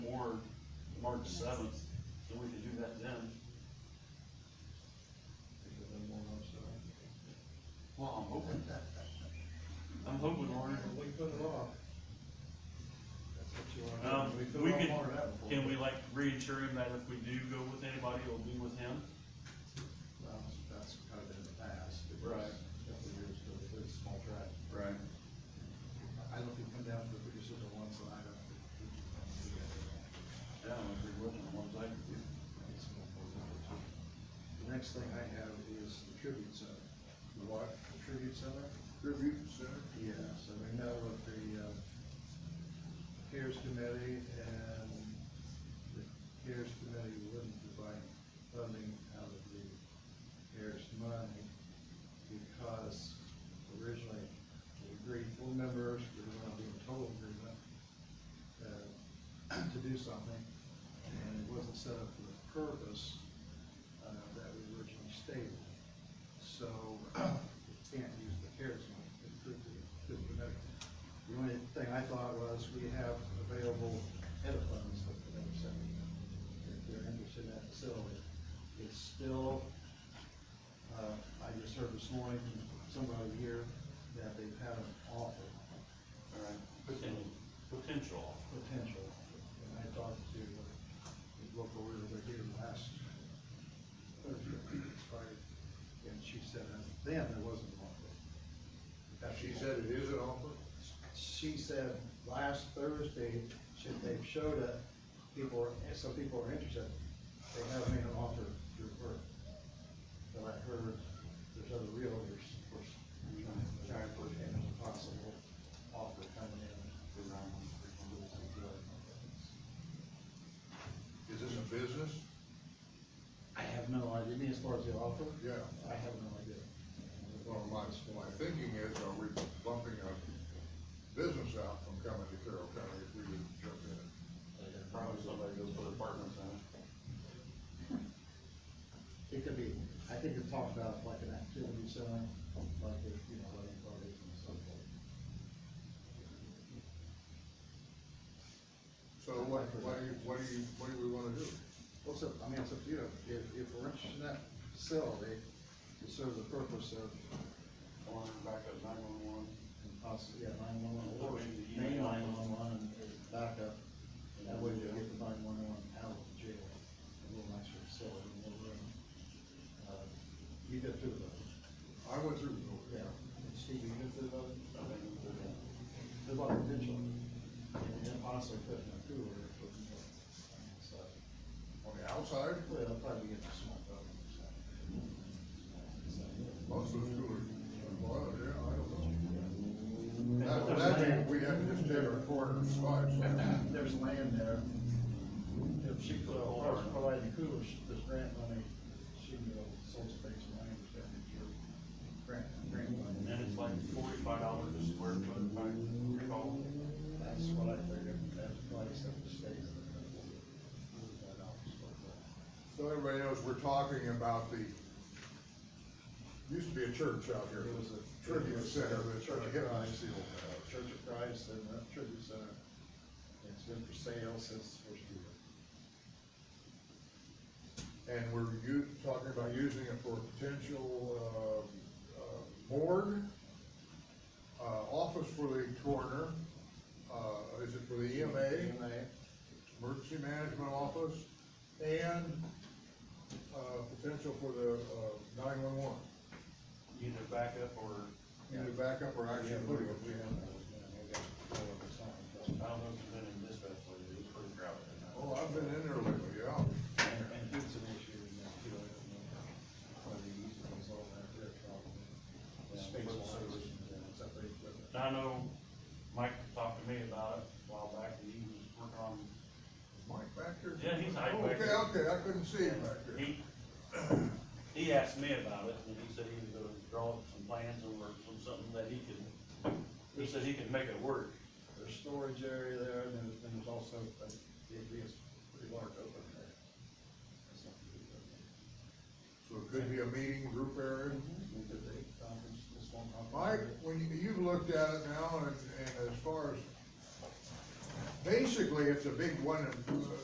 March seventh, so we could do that then. Well, I'm hoping, I'm hoping, Warren, We put it off. That's what you wanna do. Um, put we off could- more of that before. can we like reassure him that if we do go with anybody, it'll be with him? Well, that's kind of been in the past. It was Right. a Couple of years ago, they did a small track. Right. I don't think come down to the producers at once, and I don't think. we can come together. Yeah, I'm agree with him, I'm like, It's more for number two. The next thing I have is the tribute center. The what? The tribute center? tribute, sir. Yeah, so we know of the, uh, CARES committee and the CARES committee wouldn't provide funding out of the CARES money because originally we agreed four members, we were gonna be in total agreement, uh, to do something, and it wasn't set up for the purpose, uh, that we originally stated. So, we can't use the CARES money, it could be, could be better. The only thing I thought was, we have available edit funds that the other side, if they're interested in that facility. It's still, uh, I just heard this morning from somebody here that they've had an offer, Alright. Potential, potential. potential, and I talked to the local realtor here last Thursday, Friday, and she said, uh, then there wasn't an offer. That's She the- said it is an offer? she said last Thursday, should they showed it, people are, some people are interested, they have made an offer through her. But I heard there's other realtors, of course, trying to push in as a possible offer coming in. Is this a business? I have no idea, I mean, as far as the offer, Yeah. I have no idea. Well, my, my thinking is, are we bumping a business out from coming to Carroll County if we didn't jump in? Probably somebody goes for apartments, huh? It could be, I think it talked about like an activity center, like, if, you know, like parties and so forth. So what, what do you, what do you, what do we wanna do? Well, it's up, I mean, it's up to you, if, if we're interested in that facility, to serve the purpose of, I want him back at nine one one. and possibly, yeah, nine-one-one, or Put in the main email. nine-one-one and and backup. That way we get the nine-one-one out of the jail, a little nicer facility, a little room. Uh, You did through those, I went through the door. yeah, and Steve, you did through those, I think we could, uh, there's a lot of potential, and then possibly putting a cooler, or putting, uh, so, On the outside, well, it'll probably get a small building, so. So, most of the coolers, well, yeah, I don't know. That, that, we have to just take our corner spot, so. There's land there. If she could, of course, provide the cooler, she- this grant money, she can go sold space land, that is your grant, grant And money. then it's like forty-five dollars a square foot, if I recall. That's what I figured, that's why it's up to state. That out, so, but- So everybody knows, we're talking about the, used to be a church out here. It was a- Tribute center, the church, Church yeah, of I Christ. see all uh, Church of Christ and the Tribute Center, it's been for sale since the first year. that. And we're u, talking about using it for potential, uh, uh, board, uh, office for the coroner, uh, is it for the EMA, May. emergency management office, and, uh, potential for the, uh, nine-one-one. Either backup or, Either backup or actually putting it Yeah, in. I got to go over time, but- I don't know if you've been in dispatch lately, it's pretty crowded. in that. Oh, I've been in there lately, yeah. And, and it's an issue, and that, too, I don't know, whether you use it as all that, their problem. Space wise, and it's up there, Now, but- I know Mike talked to me about it a while back, and he was working on, Mike back there? Yeah, he's hiding back there. Okay, okay, I couldn't see him back there. he, he asked me about it, and he said he was gonna draw up some plans or some, something that he could, he said he could make it work. There's storage area there, and then there's- then there's also, uh, it is pretty large open area. That's not too bad. So it could be a meeting group area. We um, did the conference, this one conference. Mike, when you, you've looked at it now and, and as far as, basically, it's a big one, uh,